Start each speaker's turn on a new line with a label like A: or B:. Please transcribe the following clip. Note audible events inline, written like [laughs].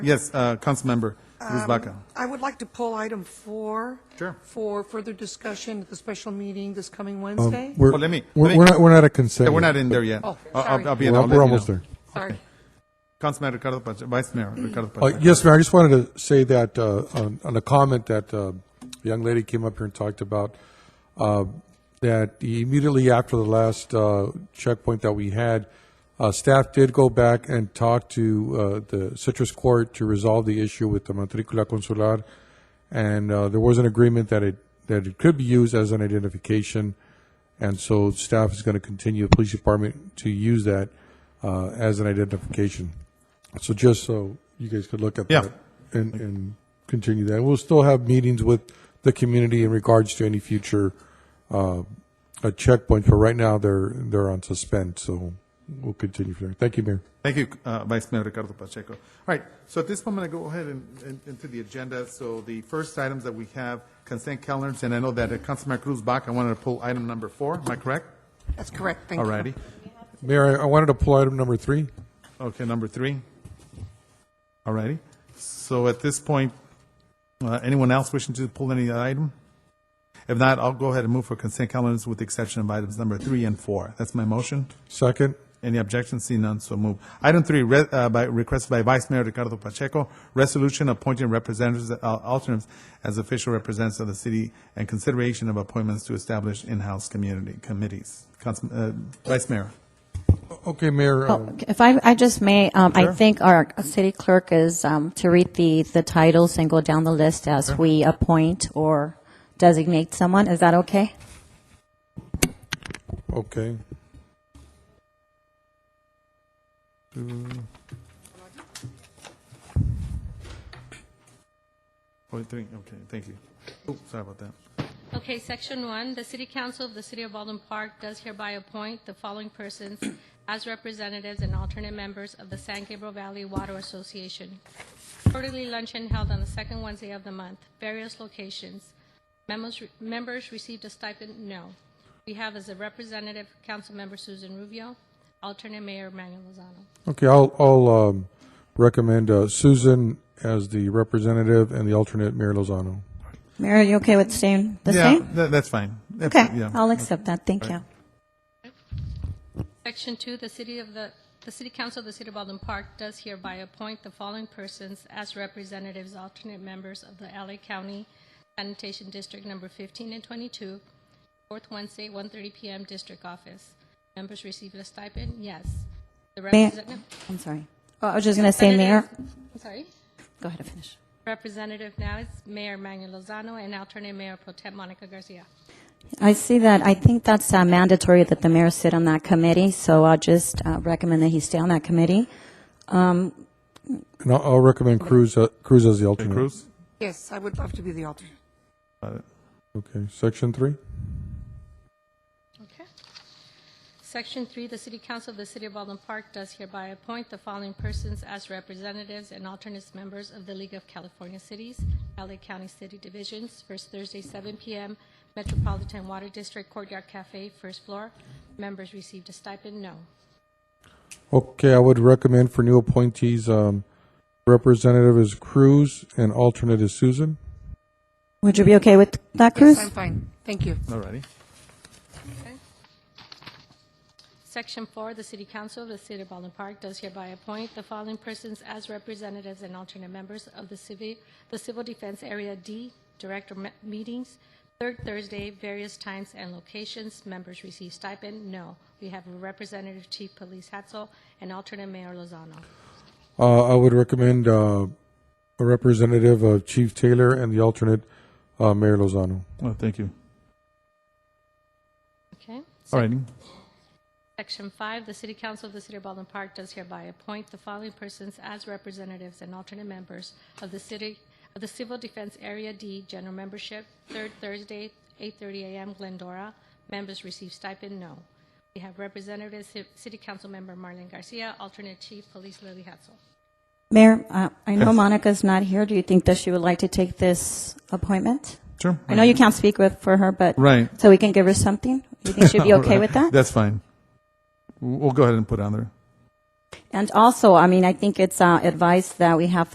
A: Yes, uh, Councilmember Ruiz Baca.
B: I would like to pull item four.
A: Sure.
B: For further discussion at the special meeting this coming Wednesday.
A: Oh, let me-
C: We're,
A: let me-
C: we're not, we're not a consent.
A: Yeah, We're
C: yet.
A: not in there yet.
B: Oh,
A: I'll- I'll- I'll be in-
C: We're,
A: I'll let
C: we're
A: you
C: almost
A: know.
C: there.
B: Sorry.
A: Councilman Ricardo Pacheco, Vice Mayor Ricardo
C: Uh,
A: Pacheco.
C: yes, Mayor, I just wanted to say that, uh, on, on a comment that, uh, a young lady came up here and talked about, uh, that immediately after the last, uh, checkpoint that we had, uh, staff did go back and talk to, uh, the Citrus Court to resolve the issue with the matricula consular. And, uh, there was an agreement that it, that it could be used as an identification. And so staff is going to continue, the police department, to use that, uh, as an identification. So just so you guys could look at
A: Yeah.
C: that and, and continue that. We'll still have meetings with the community in regards to any future uh, uh, checkpoints, but right now they're they're on suspend, so we'll continue from there. Thank you, Mayor.
A: Thank you, uh, Vice Mayor Ricardo Pacheco. All right, so at this moment, I go ahead and, and into the agenda. So the first items that we have, consent calendars, and I know that uh, Councilman Cruz Baca wanted to pull item number four. Am I correct?
B: That's correct, thank
A: All
B: you.
A: righty.
C: Mayor, I, I wanted to pull item number three.
A: Okay, number three. All righty. So at this point, uh, anyone else wishing to pull any item? If not, I'll go ahead and move for consent calendars with the exception of items number three and four. That's my motion.
C: Second,
A: Any objections? See none, so move. Item three, re- uh, by, requested by Vice Mayor Ricardo Pacheco, resolution appointing representatives, uh, alternates as official representatives of the city and consideration of appointments to establish in-house community committees. Council, uh, Vice Mayor.
C: okay, Mayor.
A: Um,
C: uh,
D: Oh, If I, I just may, um, I think our city clerk is, um, to read the, the titles and go down the list as we appoint or designate someone. Is that okay?
C: Okay.
A: Point Oh, three, okay, thank you. Oh, sorry about that.
E: Okay, section one, the city council of the city of Baldwin Park does hereby appoint the following persons as representatives and alternate members of the San Gabriel Valley Water Association. Quarterly luncheon held on the second Wednesday of the month, various locations. Memos, members received a stipend, no. We have as a representative, Councilmember Susan Rubio, alternate mayor Manuel Lozano.
C: Okay, I'll, I'll um, recommend uh, Susan as the representative and the alternate, Mayor Lozano.
D: Mayor, are you okay with staying the
A: Yeah,
D: same?
A: tha- that's fine. That's-
D: Okay,
A: yeah.
D: I'll accept that. Thank you.
E: Section two, the city of the, the city council of the city of Baldwin Park does hereby appoint the following persons as representatives, alternate members of the LA County Sanitation District Number fifteen and twenty-two, fourth Wednesday, 1:30 PM, district office. Members receive a stipend, yes. The
D: May-
E: representative.
D: I'm sorry. Oh, I was just gonna say, Mayor,
E: I'm sorry.
D: go ahead and finish.
E: Representative now is Mayor Manuel Lozano and alternate Mayor Pro Tem Monica Garcia.
D: I see that, I think that's uh, mandatory that the mayor sit on that committee, so I'll just uh, recommend that he stay on that committee.
C: And I'll, I'll recommend Cruz, uh, Cruz as the alternate.
A: Cruz?
B: Yes, I would love to be the alternate.
A: Uh,
C: Okay, section three.
E: Okay. Section three, the city council of the city of Baldwin Park does hereby appoint the following persons as representatives and alternates members of the League of California Cities, LA County City Divisions, first Thursday, 7 p.m., Metropolitan Water District Courtyard Cafe, first floor. Members received a stipend, no.
C: Okay, I would recommend for new appointees, um, representative is Cruz and alternate is Susan.
D: Would you be okay with that, Cruz?
B: Yes, I'm fine, thank you.
A: All righty.
E: Section four, the city council of the city of Baldwin Park does hereby appoint the following persons as representatives and alternate members of the civil, the Civil Defense Area D Director me- Meetings, third Thursday, various times and locations. Members receive stipend? No. We have Representative Chief Police Hatzel and alternate Mayor Lozano.
C: Uh, I would recommend, uh, a representative of Chief Taylor and the alternate, uh, Mayor Lozano.
A: Well, Oh, thank you.
E: Okay?
A: All righty.
E: Section 5, the City Council of the City of Baldwin Park does hereby appoint the following persons as representatives and alternate members of the city, of the Civil Defense Area D General Membership, third Thursday, 8:30 a.m., Glendora. Members receive stipend, no. We have Representative Ci- City Council Member Marlene Garcia, alternate Chief Police Lily Hatzel.
D: Mayor, uh, I know
A: Yes.
D: Monica's not here. Do you think that she would like to take this appointment?
A: Sure.
D: I know you can't speak with, for her, but.
A: Right.
D: So we can give her something? You think
A: [laughs]
D: she'd be okay with that?
A: That's fine. We'll we'll go ahead and put it on there.
D: And also, I mean, I think it's uh, advice that we have